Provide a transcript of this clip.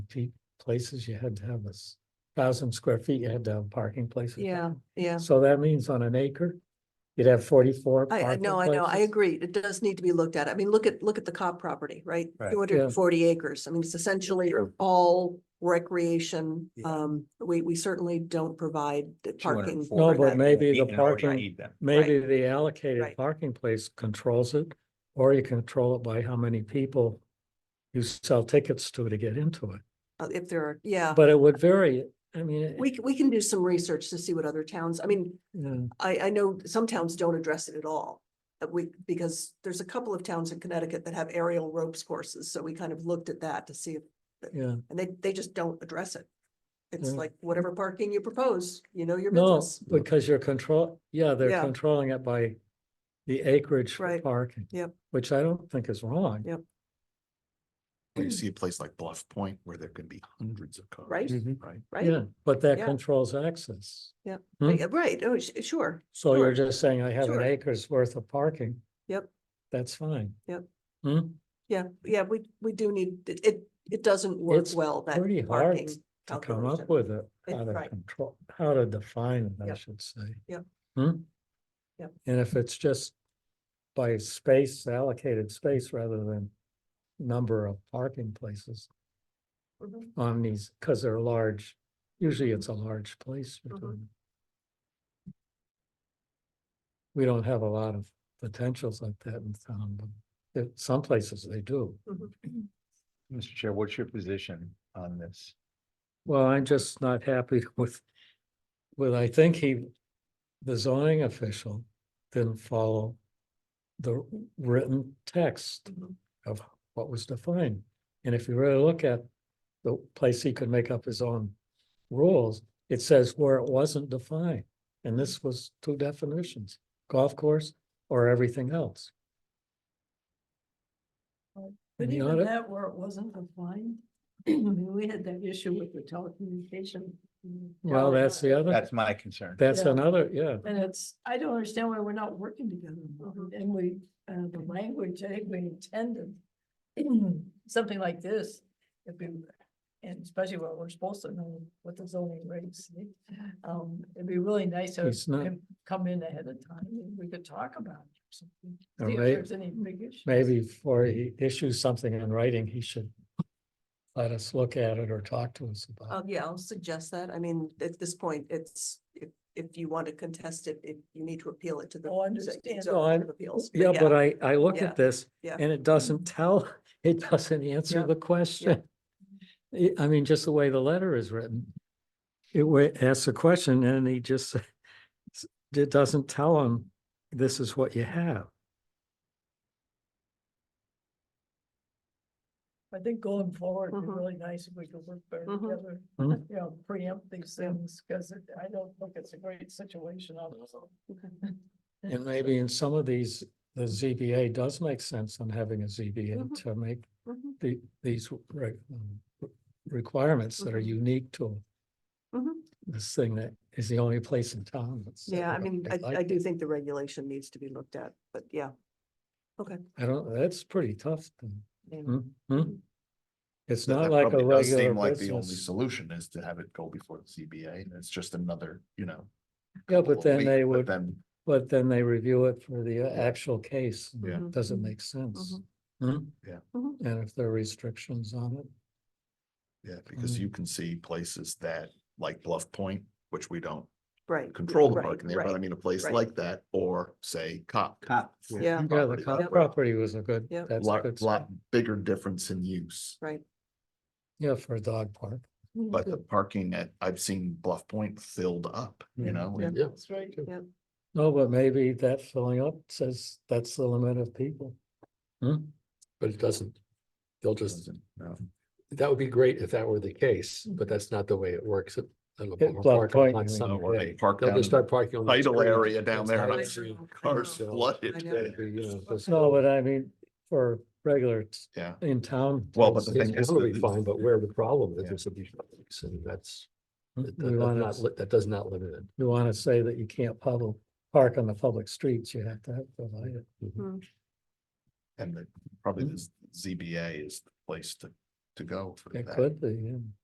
feet places, you had to have this thousand square feet, you had to have parking places. Yeah, yeah. So that means on an acre, you'd have forty-four. I, I parking know, I know, I places. agree. It does need to be looked at. I mean, look at, look at the Cobb property, right? Right. Two hundred and forty acres. I mean, it's essentially all recreation. Yeah. Um, we, we certainly don't provide the parking. 240. No, for but that. maybe You the can already parking, eat them. maybe the allocated Right. parking place controls it, or you control it by how many people you sell tickets to to get into it. Uh, If there are, yeah, But it would vary, I mean. it- we, c- we can do some research to see what other towns, I mean, yeah. I, I know some towns don't address it at all. uh, we, because there's a couple of towns in Connecticut that have aerial ropes courses, so we kind of looked at that to see if Yeah, And they, they just don't address it. It's Yeah. like whatever parking you propose, you know your no, business. because you're control, yeah, they're Yeah. controlling it by the acreage for Right. parking. Yep. Which I don't think is wrong. Yep. When you see a place like Bluff Point where there can be hundreds of cars. Right. Mhm. Right. Yeah, Right? but that Yeah. controls access. Hmm. Yeah, Right, oh, sh- sure, So you're Sure. just saying I have an Sure. acre's worth of parking. Yep. That's fine. Yep. Hmm, yeah, yeah, we, we do need, it, it, it doesn't work It's well, that pretty hard parking. to come up calculation. with it, It- how to right. control, how to define it, I Yep. should say. Yep. Hmm? Yep. And if it's just by space, allocated space rather than number of parking places Mhm. on these, because they're large, usually it's a large place you're Mhm. doing. We don't have a lot of potentials like that in town, but it- some places they do. Mr. Chair, what's your position on this? Well, I'm just not happy with, with, I think he, the zoning official didn't follow the written text Mhm. Mm-hmm. of what was defined. And if you really look at the place he could make up his own rules, it says where it wasn't defined. And this was two definitions, golf course or everything else. But And he even oughta- that where it wasn't defined, I mean, we had that issue with the telecommunication. mm, Well, tower. that's the other, That's my concern. that's yeah. another, yeah. And it's, I don't understand why we're not working together more. Mhm. and we, uh, the language, I think we intended. Something like this, if we, and especially when we're supposed to know what the zoning regs. say, Um, it'd be really nice to It's not- come- come in ahead of time, and we could talk about it or something. And See if may- there's any big issues. maybe before he issues something in writing, he should let us look at it or talk to us Uh, about yeah, I'll suggest that. I mean, at this point, it's, if, if you want to contest it, it, you need to appeal it to the. Oh, I zo- understand. zoning No, I'm- board of it. Appeals. Yeah, but Oh, I, I look yeah, at this yeah. and it doesn't tell, it doesn't answer Yeah, the question. I- I mean, just the way the letter is written. It wa- asks a question and he just, s- it doesn't tell him, this is what you have. I think going forward, Mm-hmm. it'd be Mhm. really nice if we could work better Mhm. together, Mhm. you know, preempt these things, because I don't think it's a great situation on And maybe in some of these, the ZBA does make sense on having a ZBA Mhm. to make Mhm, the, these re- um, re- requirements that are Mhm. unique to mhm. this thing that is the only place in town. that's set Yeah, I up mean, I, like I do that. think the regulation needs to be looked at, but yeah. I don't, that's pretty tough. thing. Yeah. Hmm, Mm-hmm. hmm. It's That- not that like a probably does seem regular Like the only business. solution is to have it go before the CBA and it's just another, you know. Yeah, but couple then week, they but would, Then, but then they review it for the uh, actual case. yeah, Mhm. Doesn't make sense. Mhm. Hmm? Yeah. Mhm. And if there are restrictions on it, yeah, because Mm. you can see places that like Bluff Point, which we don't Right. yeah, control the right, parking there, but I right. mean, a place Right. like that or say Cop. Cop. Yeah. yeah, the Property co- that way. property was a good, Yep. that's a Lot, good, s- lot bigger difference in use, yeah, for a dog park. Mm-hmm. but the parking at, I've seen Bluff Point filled up, you Mm. know? Mm-hmm. Yeah. and- That's right. No, but maybe that filling up says that's the limit of people. Hmm? But it doesn't. They'll just, No. that would be great if that were the case, but that's not the way it works. at- at La At Palma Bluff Park Point, on you mean. Summer Or they Bay. park They'll down in just start parking on. the idle street. area down It's there and not I like see I Cars know, flooded. I know. it'd be, you know, just- No, but I mean, for regular t- Yeah. in town. Well, but types, the It's thing is. totally that- fine, but where the problem is, Yeah. there's a big, and that's, that- We that- that's want not, to, li- that does not limit it. we want to say that you can't public, park on the public streets, you have to have provided. Mm-hmm. And the, probably this ZBA is the place to to go for It that. could be, yeah.